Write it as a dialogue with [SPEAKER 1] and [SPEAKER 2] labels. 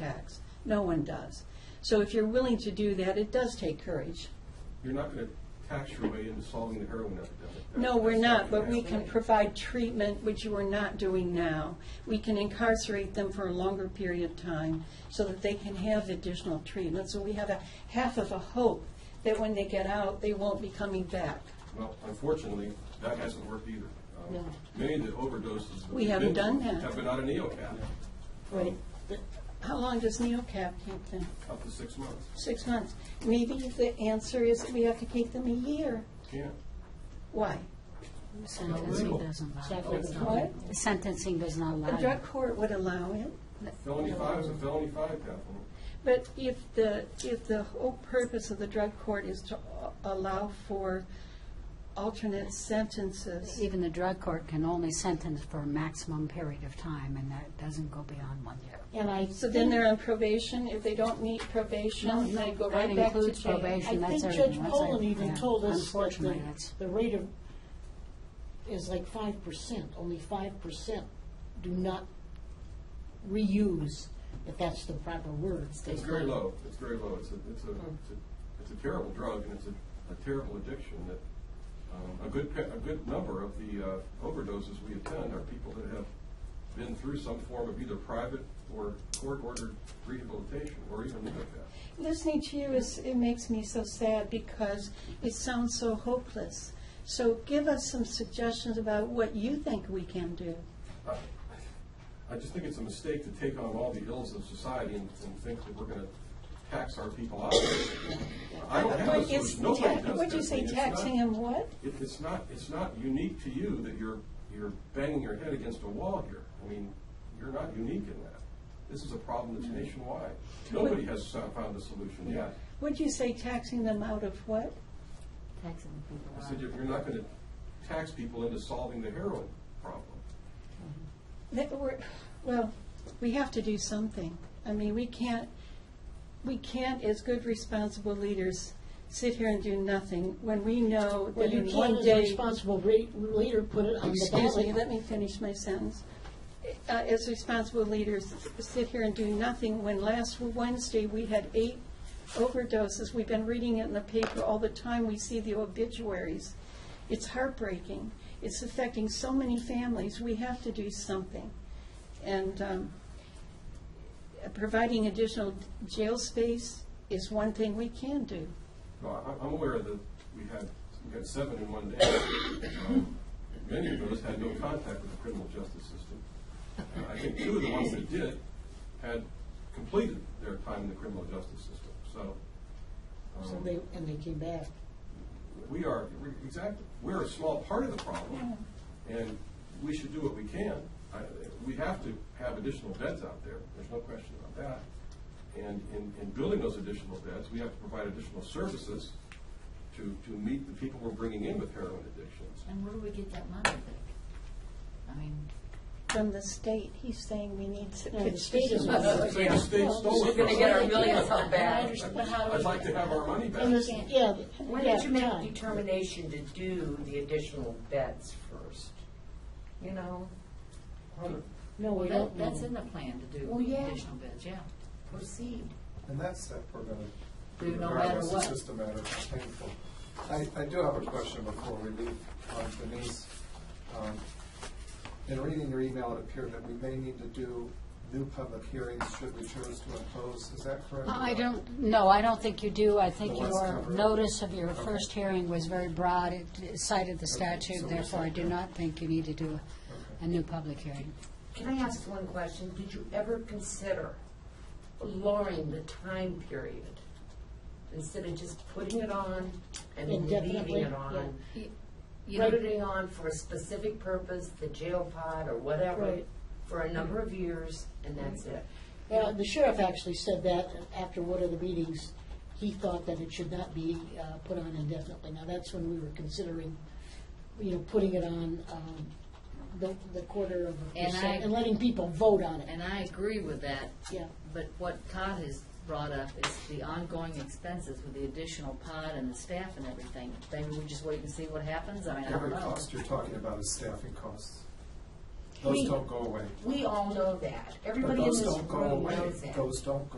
[SPEAKER 1] tax. No one does. So if you're willing to do that, it does take courage.
[SPEAKER 2] You're not going to tax your way into solving the heroin epidemic. That-
[SPEAKER 1] No, we're
[SPEAKER 2] that's
[SPEAKER 1] not,
[SPEAKER 2] gonna
[SPEAKER 1] but we
[SPEAKER 2] happen.
[SPEAKER 1] can provide treatment, which you are not doing now. We can incarcerate them for a longer period of time so that they can have additional treatment. So we have a half of a hope that when they get out, they won't be coming back.
[SPEAKER 2] Well, unfortunately, that hasn't worked either. Um,
[SPEAKER 1] No.
[SPEAKER 2] Many of the overdoses. that
[SPEAKER 1] We
[SPEAKER 2] we've
[SPEAKER 1] haven't
[SPEAKER 2] been
[SPEAKER 1] done
[SPEAKER 2] through
[SPEAKER 1] that.
[SPEAKER 2] Have been out of NeoCap,
[SPEAKER 1] Right. How long does NeoCap keep them?
[SPEAKER 2] up to six months.
[SPEAKER 1] Six months. Maybe the answer is that we have to keep them a year.
[SPEAKER 2] Can't.
[SPEAKER 1] Why?
[SPEAKER 2] Illegal.
[SPEAKER 3] Sentencing doesn't allow it.
[SPEAKER 1] What?
[SPEAKER 3] Sentencing does not
[SPEAKER 1] The
[SPEAKER 3] allow
[SPEAKER 1] drug
[SPEAKER 3] it.
[SPEAKER 1] court would allow it.
[SPEAKER 2] Felony five is a felony five, Kathleen.
[SPEAKER 1] But if the, if the whole purpose of the drug court is to allow for alternate sentences,
[SPEAKER 3] Even the drug court can only sentence for a maximum period of time, and that doesn't go beyond one year.
[SPEAKER 4] And I.
[SPEAKER 1] so then
[SPEAKER 4] think-
[SPEAKER 1] they're on probation, if they don't meet probation, they go right
[SPEAKER 3] That
[SPEAKER 1] back to
[SPEAKER 3] includes
[SPEAKER 1] jail.
[SPEAKER 3] probation,
[SPEAKER 4] I
[SPEAKER 3] that's
[SPEAKER 4] think
[SPEAKER 3] everything.
[SPEAKER 4] Judge
[SPEAKER 3] That's
[SPEAKER 4] Poland
[SPEAKER 3] everything.
[SPEAKER 4] even
[SPEAKER 3] Yeah.
[SPEAKER 4] told us that
[SPEAKER 3] Unfortunately,
[SPEAKER 4] the,
[SPEAKER 3] that's,
[SPEAKER 4] the rate of, is like five percent, only five percent do not reuse, if that's the proper word.
[SPEAKER 2] It's very low. It's very low. It's a, it's a,
[SPEAKER 1] Hmm.
[SPEAKER 2] it's a, it's a terrible drug and it's a, a terrible addiction that, um, a good, pa- a good number of the uh, overdoses we attend are people that have been through some form of either private or court-ordered rehabilitation or even NeoCap.
[SPEAKER 1] Listening to you is, it makes me so sad because it sounds so hopeless. So give us some suggestions about what you think we can do.
[SPEAKER 2] I just think it's a mistake to take on all the ills of society and, and think that we're gonna tax our people out. I don't have
[SPEAKER 1] What
[SPEAKER 2] a
[SPEAKER 1] is
[SPEAKER 2] solution, nobody
[SPEAKER 1] ta-
[SPEAKER 2] does.
[SPEAKER 1] What'd you
[SPEAKER 2] this. I
[SPEAKER 1] say,
[SPEAKER 2] mean, it's
[SPEAKER 1] taxing
[SPEAKER 2] not-
[SPEAKER 1] them what?
[SPEAKER 2] It, it's not, it's not unique to you that you're, you're banging your head against a wall here. I mean, you're not unique in that. This is a problem that's nationwide. Nobody has so- found a solution yet.
[SPEAKER 1] Would you say taxing them out of what?
[SPEAKER 2] I said, you're you're not gonna tax people into solving the heroin problem.
[SPEAKER 1] That we're, well, we have to do something. I mean, we can't, we can't, as good responsible leaders, sit here and do nothing when we know
[SPEAKER 4] Well,
[SPEAKER 1] that
[SPEAKER 4] you
[SPEAKER 1] in one
[SPEAKER 4] can't, as a
[SPEAKER 1] day.
[SPEAKER 4] responsible re- leader, put it on the
[SPEAKER 1] Excuse me, let me
[SPEAKER 4] ballot.
[SPEAKER 1] finish my sentence. Uh, As responsible leaders, sit here and do nothing when last Wednesday we had eight overdoses. We've been reading it in the paper all the time. We see the obituaries. It's heartbreaking. It's affecting so many families. We have to do something. And um, providing additional jail space is one thing we can do.
[SPEAKER 2] No, I- I'm aware that we had, we had seven in one day. Um, Many of those had no contact with the criminal justice system. Uh, I think two of the ones that did had completed their time in the criminal justice system, so. um,
[SPEAKER 4] So they, and they came back.
[SPEAKER 2] We are, we- exactly, we're a small part of the problem, and we should do what we can. I- We have to have additional beds out there, there's no question about that. And in, in building those additional beds, we have to provide additional services to, to meet the people we're bringing in with heroin addictions.
[SPEAKER 5] And where do we get that money? I mean,
[SPEAKER 1] From the state, he's saying we need.
[SPEAKER 4] No, the state is not-
[SPEAKER 2] The state- the state stole it
[SPEAKER 5] we're gonna
[SPEAKER 2] from
[SPEAKER 5] get
[SPEAKER 2] us.
[SPEAKER 5] our millions out
[SPEAKER 4] I
[SPEAKER 5] back.
[SPEAKER 4] understand, but how do
[SPEAKER 2] I'd
[SPEAKER 4] we-
[SPEAKER 2] like to have our money
[SPEAKER 4] And
[SPEAKER 2] back.
[SPEAKER 4] this, yeah.
[SPEAKER 6] Why
[SPEAKER 4] yeah,
[SPEAKER 6] did you make a
[SPEAKER 4] time.
[SPEAKER 6] determination to do the additional beds first? You know,
[SPEAKER 4] No, we
[SPEAKER 5] that,
[SPEAKER 4] don't
[SPEAKER 5] that's in
[SPEAKER 4] know.
[SPEAKER 5] the plan to do
[SPEAKER 4] Well, yeah.
[SPEAKER 5] additional bids, yeah. Proceed.
[SPEAKER 7] And that step we're gonna.
[SPEAKER 5] Do no
[SPEAKER 7] regardless,
[SPEAKER 5] matter what.
[SPEAKER 7] It's just a matter of painful. I, I do have a question before we leave on Denise. Um, In reading your email, it appeared that we may need to do new public hearings should we choose to impose, is that correct?
[SPEAKER 3] I don't, no, I don't think you do. I think
[SPEAKER 7] The ones
[SPEAKER 3] your
[SPEAKER 7] covered.
[SPEAKER 3] notice of your
[SPEAKER 7] Okay.
[SPEAKER 3] first hearing was very broad. It cited the statute,
[SPEAKER 7] we're
[SPEAKER 3] therefore I
[SPEAKER 7] set
[SPEAKER 3] do
[SPEAKER 7] there.
[SPEAKER 3] not think you need to do a- a new public hearing.
[SPEAKER 6] can I ask one question? Did you ever consider lowering the time period? Instead of just putting it on and then leaving
[SPEAKER 4] Indefinitely,
[SPEAKER 6] it on?
[SPEAKER 5] You know,
[SPEAKER 6] Putting it on for a specific purpose, the jail pod or whatever,
[SPEAKER 4] Right.
[SPEAKER 6] for a number of years, and that's it.
[SPEAKER 4] Well, the sheriff actually said that after one of the meetings, he thought that it should not be uh, put on indefinitely. Now, that's when we were considering, you know, putting it on um, the the quarter of a
[SPEAKER 5] And I-
[SPEAKER 4] percent and letting people vote on it.
[SPEAKER 5] and I agree with that.
[SPEAKER 4] Yeah.
[SPEAKER 5] But what Todd has brought up is the ongoing expenses with the additional pod and the staff and everything. Maybe we just wait and see what happens, I mean, I don't
[SPEAKER 7] Every
[SPEAKER 5] know.
[SPEAKER 7] cost you're talking about is staffing costs. Those
[SPEAKER 6] We-
[SPEAKER 7] don't go away.
[SPEAKER 6] We all know that.
[SPEAKER 7] But
[SPEAKER 6] Everybody in
[SPEAKER 7] those
[SPEAKER 6] this
[SPEAKER 7] don't go
[SPEAKER 6] room
[SPEAKER 7] away.
[SPEAKER 6] knows that.
[SPEAKER 7] Those don't go